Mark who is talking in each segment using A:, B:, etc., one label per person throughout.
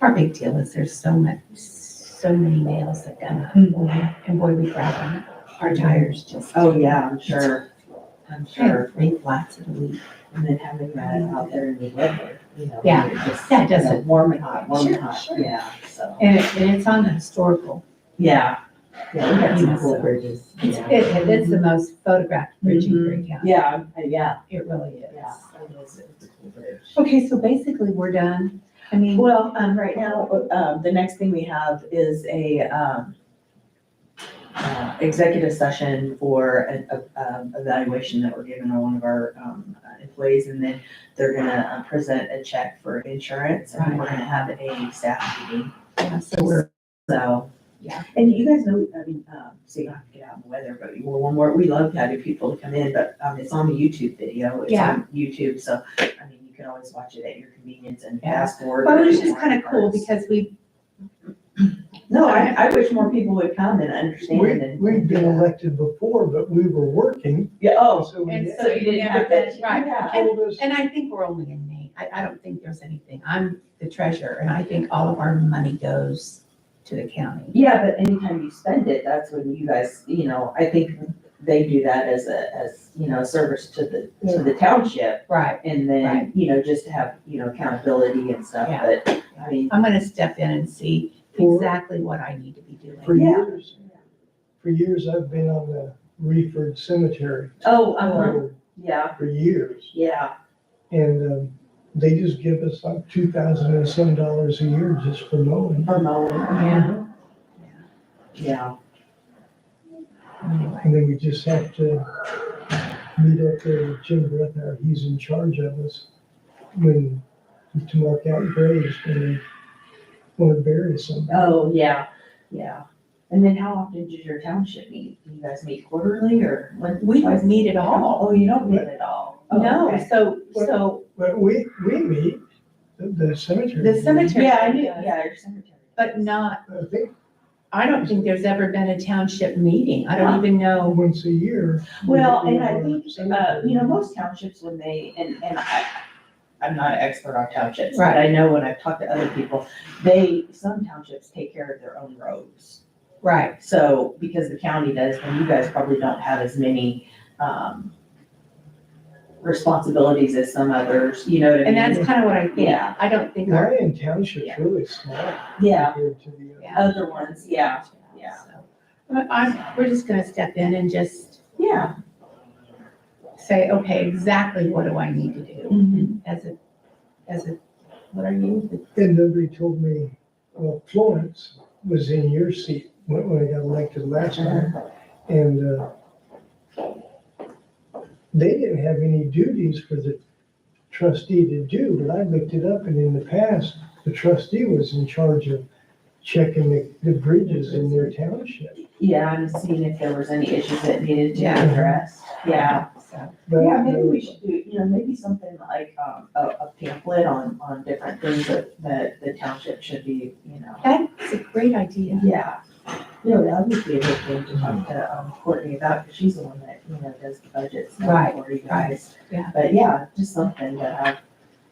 A: Our big deal is there's so much, so many nails that come up, boy, and boy, we grab them. Our tires just.
B: Hmm. Oh, yeah, I'm sure, I'm sure, Mm-hmm.
A: Three flats in a week.
B: and then having that out there in the weather, you know.
A: Yeah,
B: you're just,
A: that
B: you know,
A: doesn't-
B: Warm and hot, warm and
A: Sure,
B: hot,
A: sure.
B: yeah, so,
A: And it, and it's on the historical.
B: yeah, yeah, we had some cool
A: So-
B: bridges,
A: It's,
B: yeah.
A: it, it's the most photographed bridge in
B: Mhm.
A: Greene County.
B: Yeah, uh, yeah,
A: It really is.
B: yeah. it was- it was a cool bridge.
A: Okay, so basically we're done. I mean,
B: Well, um, right now, um, the next thing we have is a, um, uh, executive session for an, a- um, evaluation that we're giving on one of our, um, uh, employees. And then they're gonna uh, present a check for insurance and we're gonna have a staff meeting,
A: yeah, so we're,
B: so.
A: Yeah.
B: And you guys know, I mean, um, so you don't have to get out in the weather, but we're one more, we love having people to come in, but, um, it's on the YouTube video. It's
A: Yeah.
B: on YouTube, so, I mean, you can always watch it at your convenience and
A: Yeah.
B: fast forward.
A: well, it was
B: if you
A: just kind of cool
B: want.
A: because we,
B: No, I, I wish more people would come and understand
C: We,
B: and.
C: we'd been elected before, but we were working,
B: Yeah, oh,
C: so
A: And
C: we
A: so you didn't have that, right.
B: Yeah.
C: told us,
A: and I think we're only in name. I, I don't think there's anything. I'm the treasurer and I think all of our money goes to the county.
B: Yeah, but anytime you spend it, that's when you guys, you know, I think they do that as a, as, you know, service to the, to the township.
A: Right.
B: And
A: Right.
B: then, you know, just to have, you know, accountability and stuff,
A: Yeah.
B: but, I mean,
A: I'm gonna step in and see exactly what I need to be
C: for
A: doing.
B: Yeah.
C: years, for years, I've been on the Reeford Cemetery
B: oh, uh-huh,
C: for,
B: yeah,
C: for years.
B: yeah,
C: And, um, they just give us like two thousand and some dollars a year just for mowing.
B: for mowing.
A: Yeah.
B: Yeah,
A: Anyway,
C: And then we just have to meet up there with Jim Brethner, he's in charge of us when, to mark out graves when we want to bury somebody.
B: oh, yeah, yeah. And then how often does your township meet? Do you guys meet quarterly or? when-
A: We don't meet at all.
B: Oh, you don't meet at all? Oh,
A: No,
B: okay.
A: so, so
C: But we, we meet, the- the cemetery.
A: the cemetery.
B: Yeah, I knew,
A: does,
B: yeah, your cemetery.
A: But not,
C: I think
A: I don't think there's ever been a township meeting. I don't even know.
C: once a year. we
B: Well, and I
C: have
B: think, uh,
C: cemetery.
B: you know, most townships when they, and, and I, I'm not an expert on townships, but I know when I've talked to other people, they, some townships take care of their own roads.
A: Right.
B: So, because the county does, and you guys probably don't have as many, um, responsibilities as some others, you know what I mean?
A: And that's kind of what I think.
B: Yeah.
A: I don't think our.
C: Lyon Township's
B: Yeah.
C: really small
B: Yeah,
C: compared to the, other-
B: other ones, yeah, yeah.
A: So, I- I'm, we're just gonna step in and just
B: yeah.
A: say, okay, exactly what do I need to do
B: mm-hmm.
A: as a, as a, what are you?
C: and nobody told me, well, Florence was in your seat when, when I got elected last time. And uh, they didn't have any duties for the trustee to do, but I looked it up, and in the past, the trustee was in charge of checking the, the bridges in their township.
B: Yeah, I'm seeing if there was any issues that needed to be
A: Yeah.
B: addressed, yeah.
A: So,
C: But
B: Yeah, maybe we should do, you know, maybe something like, um, a, a pamphlet on, on different things that, that the township should be, you know.
A: that's a great idea.
B: Yeah, you know, that would be a good thing to talk to, um, Courtney about, because she's the one that, you know, does the budgets now
A: Right,
B: for you guys.
A: yeah.
B: But yeah, just something that I,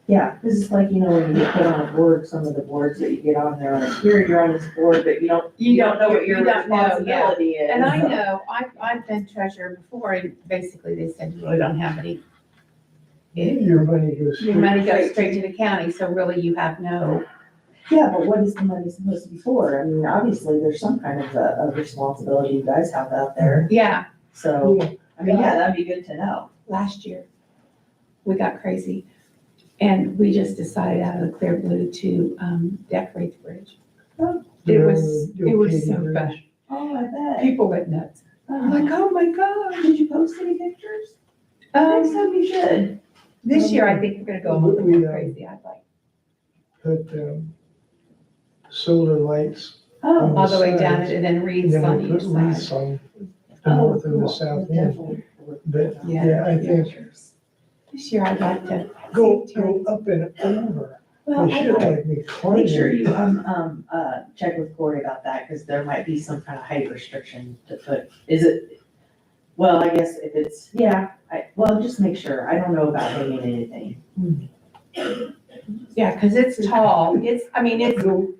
B: yeah, because it's like, you know, when you get put on a board, some of the boards that you get on there, like, here, you're on this board, but you don't, you don't know what your
A: you don't know, yeah.
B: responsibility is.
A: And I know, I, I've been treasurer before and basically they said, you really don't have any. It-
C: Your money goes.
A: Your money goes straight to the county, so really you have no,
B: Yeah, but what is the money supposed to be for? I mean, obviously, there's some kind of a, a responsibility you guys have out there,
A: yeah,
B: so,
C: Yeah,
B: I mean, yeah, that'd be good to know.
A: last year, we got crazy. And we just decided out of the clear blue to, um, decorate the bridge. It was,
C: the- the
A: it was
C: Acadia
A: so
C: Bridge.
A: fun.
B: Oh, I bet.
A: People went nuts. I'm
B: Oh,
A: like, oh my God.
B: Did you post any pictures? I think
A: Um,
B: so, you should.
A: this year, I think we're gonna go a little
C: We,
A: bit
C: uh,
A: crazy. I'd like,
C: Put, um, solar lights,
B: Oh,
A: all the way down it and then
C: and
A: wreaths on
C: then we
A: each
C: put wreaths
A: side.
C: on the
B: oh,
C: north and the
B: cool.
C: south end.
B: Definitely.
C: But,
A: Yeah.
C: yeah, I think
A: This year, I'd like to.
C: go,
A: see
C: go
A: Terry.
C: up Oh, and over.
B: Well,
C: They
B: I
C: should
B: will
C: like me
B: make sure
C: climbing.
B: you, um, um, uh, check with Corey about that, because there might be some kind of height restriction to put, is it? Well, I guess if it's, yeah, I, well, just make sure, I don't know about hanging anything.
A: Yeah, because it's tall. It's, I mean, it's